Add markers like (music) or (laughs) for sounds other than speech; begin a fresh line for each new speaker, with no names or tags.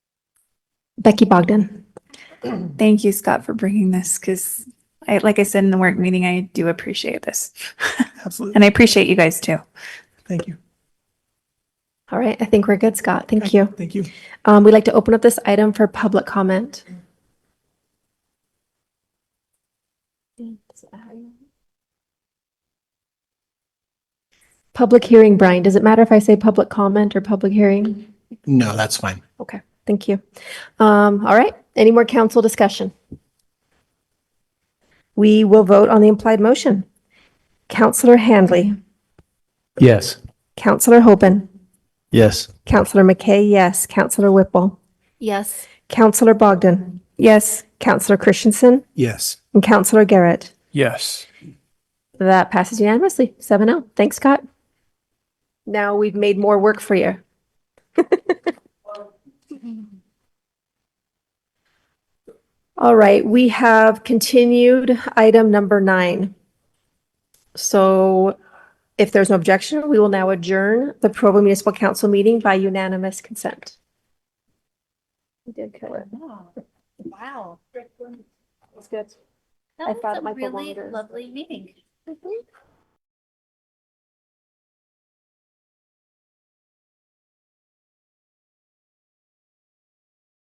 Becky Bogdan.
Thank you, Scott, for bringing this because I, like I said in the work meeting, I do appreciate this.
Absolutely.
And I appreciate you guys too.
Thank you.
All right, I think we're good, Scott. Thank you.
Thank you.
Um, we'd like to open up this item for public comment. Public hearing, Brian. Does it matter if I say public comment or public hearing?
No, Oh, that's fine.
Okay, thank you. Um, all right, any more council discussion? We will vote on the implied motion. Counselor Handley,
Yes.
Counselor Hoban,
Yes.
Counselor McKay, yes. Counselor Whipple,
Yes.
Counselor Bogdan,
Yes,
Counselor Christensen,
Yes.
and Counselor Garrett.
Yes.
That passes unanimously, 7-0. Thanks, Scott. Now we've made more work for you. (laughs) All right, we have continued item number nine. So if there's no objection, we will now adjourn the Provo Municipal Council meeting by unanimous consent. We did cut it.
Wow.
That's good.
That
I
was
thought it
a
might go
really
longer. Mm-hmm.
lovely meeting.